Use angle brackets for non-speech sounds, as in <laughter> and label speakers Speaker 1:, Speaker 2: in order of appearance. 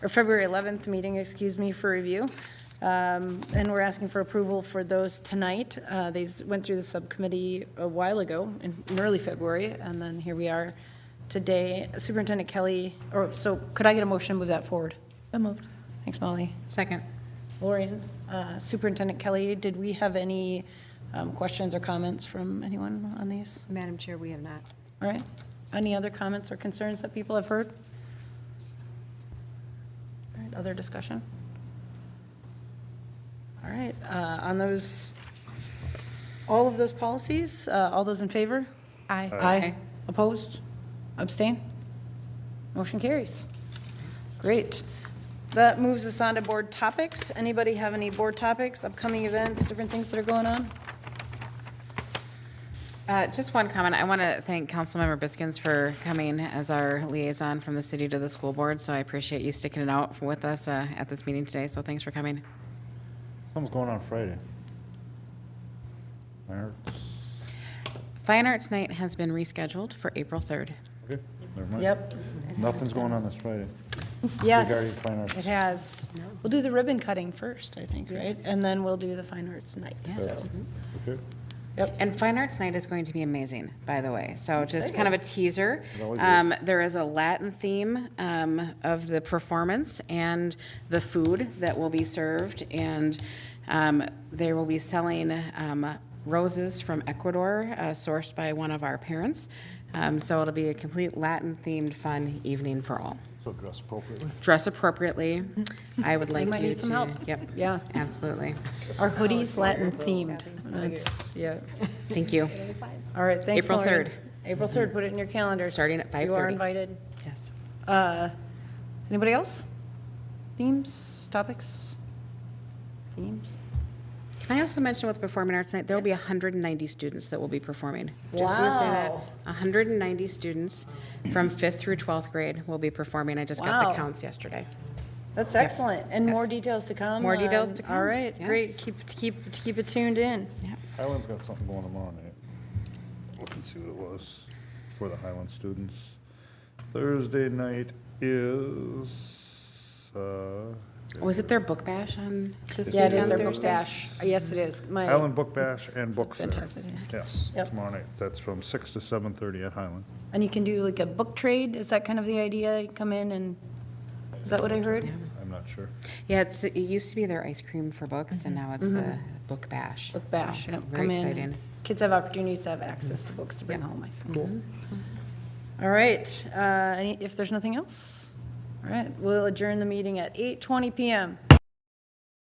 Speaker 1: or February 11th meeting, excuse me, for review. Um, And we're asking for approval for those tonight. Uh, These went through the subcommittee a while ago, in in early February, and then here we are today. Superintendent Kelly, or, so could I get a motion to move that forward?
Speaker 2: So moved.
Speaker 1: Thanks, Molly.
Speaker 2: Second.
Speaker 1: Lorian, uh, Superintendent Kelly, did we have any um, questions or comments from anyone on these?
Speaker 2: Madam Chair, we have not.
Speaker 1: All right. Any other comments or concerns that people have heard? All right, other discussion? All right, uh, on those, all of those policies, uh, all those in favor?
Speaker 2: Aye.
Speaker 1: Aye. Opposed? Abstain? Motion carries. Great. That moves us on to board topics. Anybody have any board topics, upcoming events, different things that are going on?
Speaker 3: Uh, Just one comment. I want to thank Councilmember Biskins for coming as our liaison from the city to the school board. So I appreciate you sticking it out with us uh, at this meeting today. So thanks for coming.
Speaker 4: Something's going on Friday. Mayor?
Speaker 3: Fine Arts Night has been rescheduled for April 3rd.
Speaker 4: Okay, never mind. Nothing's going on this Friday. Regarding
Speaker 1: Yes,
Speaker 4: fine arts.
Speaker 1: it has. We'll do the ribbon cutting first, I think, right? And then we'll do the fine arts night, so.
Speaker 3: Mm-hmm.
Speaker 4: Okay,
Speaker 3: And Fine Arts Night is going to be amazing, by the way. So just kind of a teaser.
Speaker 4: It always
Speaker 3: Um, There is a Latin theme um, of the performance and the food that will be served. And um, they will be selling um, roses from Ecuador, uh, sourced by one of our parents. Um, So it'll be a complete Latin-themed, fun evening for all.
Speaker 4: so dress appropriately.
Speaker 1: <laughs>
Speaker 3: Dress appropriately. I would like you to.
Speaker 1: might need some help.
Speaker 3: Yep.
Speaker 1: Yeah.
Speaker 3: Absolutely.
Speaker 1: Our
Speaker 3: Oh,
Speaker 1: hoodies Latin themed. That's, yeah. <laughs>
Speaker 3: Thank you.
Speaker 1: All right, thanks,
Speaker 3: April
Speaker 1: Lauren.
Speaker 3: 3rd.
Speaker 1: April 3rd, put it in your calendar.
Speaker 3: Starting at
Speaker 1: You are
Speaker 3: 5:30.
Speaker 1: invited.
Speaker 3: Yes.
Speaker 1: Uh, Anybody else? Themes, topics? Themes?
Speaker 3: Can I also mention with Performing Arts Night, there will be 190 students that will be performing. Just want to say that,
Speaker 1: Wow.
Speaker 3: 190 students from 5th through 12th grade will be performing. I just got
Speaker 1: Wow.
Speaker 3: the counts yesterday.
Speaker 1: That's excellent, and more details to come.
Speaker 3: More details
Speaker 1: on-
Speaker 3: to
Speaker 1: All
Speaker 3: come,
Speaker 1: right, great,
Speaker 3: yes.
Speaker 1: keep, keep, keep it tuned in.
Speaker 4: Highland's got something going tomorrow night. Look and see what it was for the Highland students. Thursday night is, uh,
Speaker 3: Was it their book bash on this
Speaker 1: Yeah, it
Speaker 3: weekend?
Speaker 1: is their book
Speaker 3: Thursday?
Speaker 1: bash. Yes, it is. My,
Speaker 4: Highland Book Bash and Book Fair.
Speaker 1: Husband has it, yes.
Speaker 4: Yes,
Speaker 1: Yep.
Speaker 4: tomorrow night. That's from six to seven-thirty at Highland.
Speaker 1: and you can do like a book trade, is that kind of the idea? You Come in and, is that what I heard?
Speaker 4: I'm not sure.
Speaker 3: Yeah, it's, it used to be their ice cream for books, and now it's the book bash.
Speaker 1: Mm-hmm. Book bash,
Speaker 3: So,
Speaker 1: yep,
Speaker 3: Very
Speaker 1: come in.
Speaker 3: exciting.
Speaker 1: Kids have opportunities to have access to books to bring home, I think. Mm-hmm. All right, uh, any- if there's nothing else, all right, we'll adjourn the meeting at 8:20 PM.